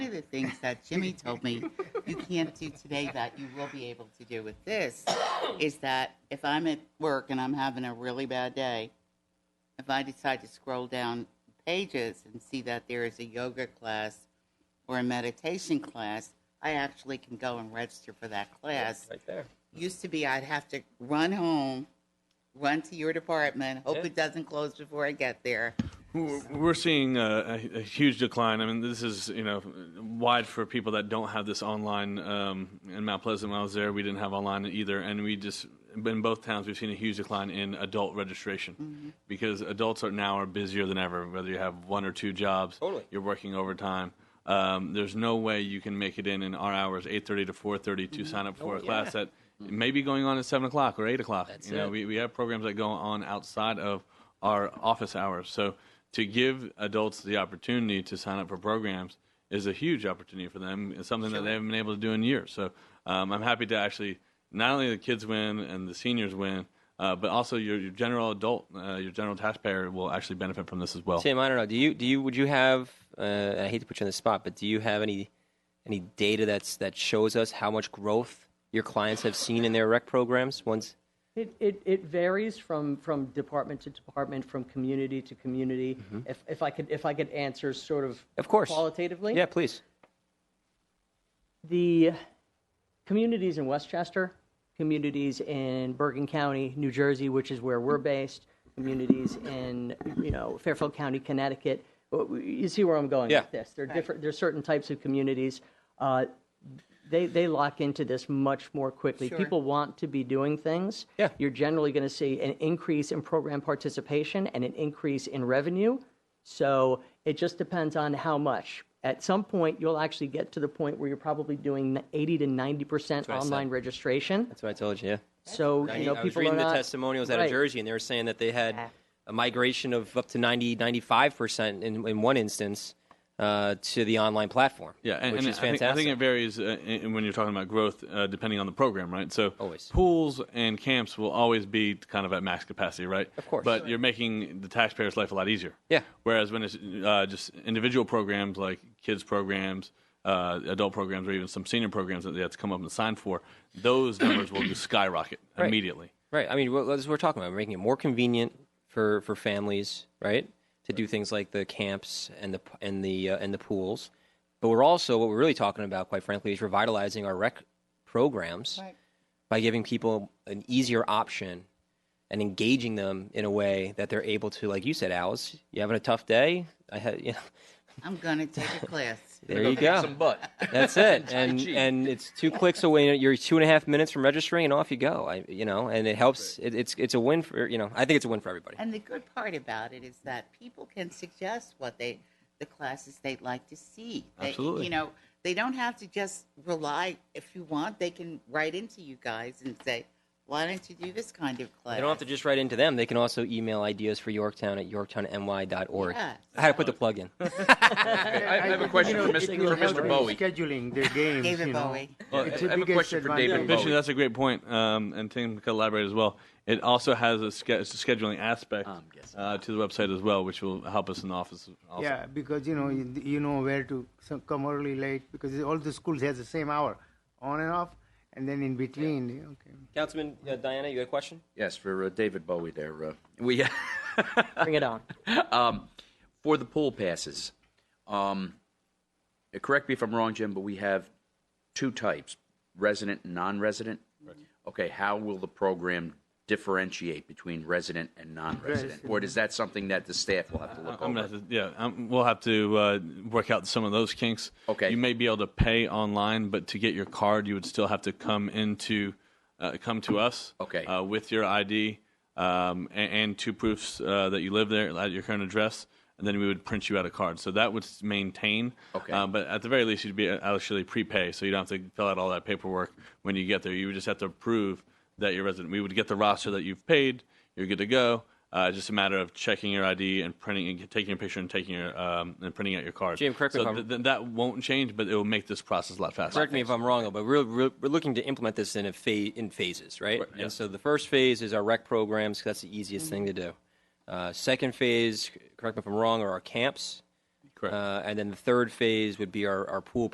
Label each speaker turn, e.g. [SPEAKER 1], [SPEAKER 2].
[SPEAKER 1] the things that Jimmy told me you can't do today that you will be able to do with this is that if I'm at work and I'm having a really bad day, if I decide to scroll down pages and see that there is a yoga class or a meditation class, I actually can go and register for that class.
[SPEAKER 2] Right there.
[SPEAKER 1] Used to be I'd have to run home, run to your department, hope
[SPEAKER 2] Yeah.
[SPEAKER 1] it doesn't close before I get there.
[SPEAKER 3] We're we're seeing a, a, a huge decline. I mean, this is you know wide for people that don't have this online. Um, in Mount Pleasant, when I was there, we didn't have online either, and we just in both towns we've seen a huge decline in adult registration
[SPEAKER 2] Mm-hmm.
[SPEAKER 3] because adults are now are busier than ever. Whether you have one or two jobs,
[SPEAKER 2] Totally.
[SPEAKER 3] you're working overtime. Um, there's no way you can make it in in our hours, 8:30 to 4:30, to
[SPEAKER 2] Mm-hmm.
[SPEAKER 3] sign up for a class that may be going on at seven o'clock or eight o'clock.
[SPEAKER 2] Oh, That's
[SPEAKER 3] you know,
[SPEAKER 2] it.
[SPEAKER 3] we, we have programs that go on outside of our office hours. So to give adults the opportunity to sign up for programs is a huge opportunity for them. It's something that they haven't been able to do in years. So um, I'm happy to actually not only the kids win and the seniors win, uh, but also your, your general adult, uh, your general taxpayer will actually benefit from this as well.
[SPEAKER 2] Tim, I don't know. Do you do you would you have? Uh, and I hate to put you on the spot, but do you have any any data that's that shows us how much growth your clients have seen in their rec programs? Once
[SPEAKER 4] It, it, it varies from, from department to department, from community to community. If, if I could if I could answer sort of
[SPEAKER 2] Mm-hmm. Of course.
[SPEAKER 4] qualitatively,
[SPEAKER 2] yeah, please.
[SPEAKER 4] the communities in Westchester, communities in Bergen County, New Jersey, which is where we're based, communities in you know Fairfield County, Connecticut. uh, You see where I'm going
[SPEAKER 2] Yeah.
[SPEAKER 4] with this? There are different. There's certain types of communities. Uh, they they lock into this much more quickly.
[SPEAKER 1] Sure.
[SPEAKER 4] People want to be doing things.
[SPEAKER 2] Yeah.
[SPEAKER 4] You're generally going to see an increase in program participation and an increase in revenue. So it just depends on how much. At some point, you'll actually get to the point where you're probably doing 80 to 90 percent
[SPEAKER 2] what I said.
[SPEAKER 4] online registration.
[SPEAKER 2] That's what I told you. Yeah.
[SPEAKER 4] so
[SPEAKER 2] I,
[SPEAKER 4] you know,
[SPEAKER 2] I was
[SPEAKER 4] people
[SPEAKER 2] reading the
[SPEAKER 4] are not,
[SPEAKER 2] testimonials out of
[SPEAKER 4] Right.
[SPEAKER 2] Jersey, and they were saying that they had
[SPEAKER 4] Yeah.
[SPEAKER 2] a migration of up to 90, 95 percent in, in one instance uh, to the online platform.
[SPEAKER 3] Yeah, and,
[SPEAKER 2] which
[SPEAKER 3] and
[SPEAKER 2] is
[SPEAKER 3] I, think, I
[SPEAKER 2] fantastic.
[SPEAKER 3] think it varies uh, in, in when you're talking about growth, uh, depending on the program, right? So
[SPEAKER 2] Always.
[SPEAKER 3] pools and camps will always be kind of at max capacity, right?
[SPEAKER 2] Of course.
[SPEAKER 3] But you're making the taxpayer's life a lot easier.
[SPEAKER 2] Yeah.
[SPEAKER 3] Whereas when it's uh, just individual programs like kids programs, uh, adult programs, or even some senior programs that they have to come up and sign for, those numbers will just skyrocket
[SPEAKER 2] Right.
[SPEAKER 3] immediately.
[SPEAKER 2] Right. I mean, well, that's what we're talking about. We're making it more convenient for, for families, right, to do things like the camps and the p- and the uh, and the pools. But we're also what we're really talking about, quite frankly, is revitalizing our rec programs
[SPEAKER 1] Right.
[SPEAKER 2] by giving people an easier option and engaging them in a way that they're able to, like you said, Alice, you having a tough day. I had, you know,
[SPEAKER 1] I'm going to take a class.
[SPEAKER 2] there you
[SPEAKER 5] Go kick
[SPEAKER 2] go.
[SPEAKER 5] Some butt.
[SPEAKER 2] That's it.
[SPEAKER 5] Tai
[SPEAKER 2] and
[SPEAKER 5] Chi.
[SPEAKER 2] and it's two clicks away. You're two and a half minutes from registering, and off you go. I, you know, and it helps. It, it's it's a win for you know. I think it's a win for everybody.
[SPEAKER 1] And the good part about it is that people can suggest what they, the classes they'd like to see. They-
[SPEAKER 3] Absolutely.
[SPEAKER 1] You know, they don't have to just rely, if you want, they can write into you guys and say, why don't you do this kind of class?
[SPEAKER 2] They don't have to just write into them. They can also email ideas for Yorktown at yorktownny.org.
[SPEAKER 1] Yes.
[SPEAKER 2] I had to put the plug in.
[SPEAKER 5] I, I have a question
[SPEAKER 6] You know,
[SPEAKER 5] for Mr.
[SPEAKER 6] it will
[SPEAKER 5] For
[SPEAKER 6] help
[SPEAKER 5] Mr.
[SPEAKER 6] in
[SPEAKER 5] Bowie.
[SPEAKER 6] Scheduling the games.
[SPEAKER 1] David
[SPEAKER 6] you know.
[SPEAKER 1] Bowie.
[SPEAKER 5] Well,
[SPEAKER 6] It's
[SPEAKER 5] I-
[SPEAKER 6] the
[SPEAKER 5] I have a
[SPEAKER 6] biggest
[SPEAKER 5] question for David
[SPEAKER 6] advantage.
[SPEAKER 5] Bowie.
[SPEAKER 3] Fishing, that's a great point, um, and Tim could elaborate as well. It also has a, sch- a scheduling aspect uh, to the website as well, which will help us in the office. Also.
[SPEAKER 6] Yeah, because you know you, you know where to so- come early, late because all the schools have the same hour, on and off, and then in between. Okay.
[SPEAKER 2] Councilman uh, Diana, you had a question?
[SPEAKER 5] Yes, for uh, David Bowie there. Uh, we
[SPEAKER 4] Bring it on.
[SPEAKER 5] um, for the pool passes. Um, uh, correct me if I'm wrong, Jim, but we have two types: resident and non-resident. Okay, how will the program differentiate between resident and non-resident, or is that something that the staff will have to look
[SPEAKER 3] I'm
[SPEAKER 5] over?
[SPEAKER 3] gonna have to, yeah, um we'll have to uh, work out some of those kinks.
[SPEAKER 5] Okay.
[SPEAKER 3] You may be able to pay online, but to get your card, you would still have to come into, uh, come to us.
[SPEAKER 5] Okay.
[SPEAKER 3] Uh, with your ID um, and, and two proofs uh, that you live there at your current address, and then we would print you out a card. So that would s- maintain.
[SPEAKER 5] Okay.
[SPEAKER 3] Uh, but at the very least, you'd be uh, actually prepay, so you don't have to fill out all that paperwork when you get there. You would just have to prove that you're resident. We would get the roster that you've paid. You're good to go. Uh, it's just a matter of checking your ID and printing and taking a picture and taking your um, and printing out your card.
[SPEAKER 2] Jim, correct me
[SPEAKER 3] so
[SPEAKER 2] if I'm-
[SPEAKER 3] th- th- that won't change, but it will make this process a lot faster.
[SPEAKER 2] Correct me if I'm wrong, though, but we're, we're, we're looking to implement this in a phase, in phases, right?
[SPEAKER 3] yeah.
[SPEAKER 2] And so the first phase is our rec programs. 'cause that's the easiest thing to do. Uh, second phase, c- correct me if I'm wrong, are our camps.
[SPEAKER 3] Correct.
[SPEAKER 2] Uh, and then the third phase would be our, our pool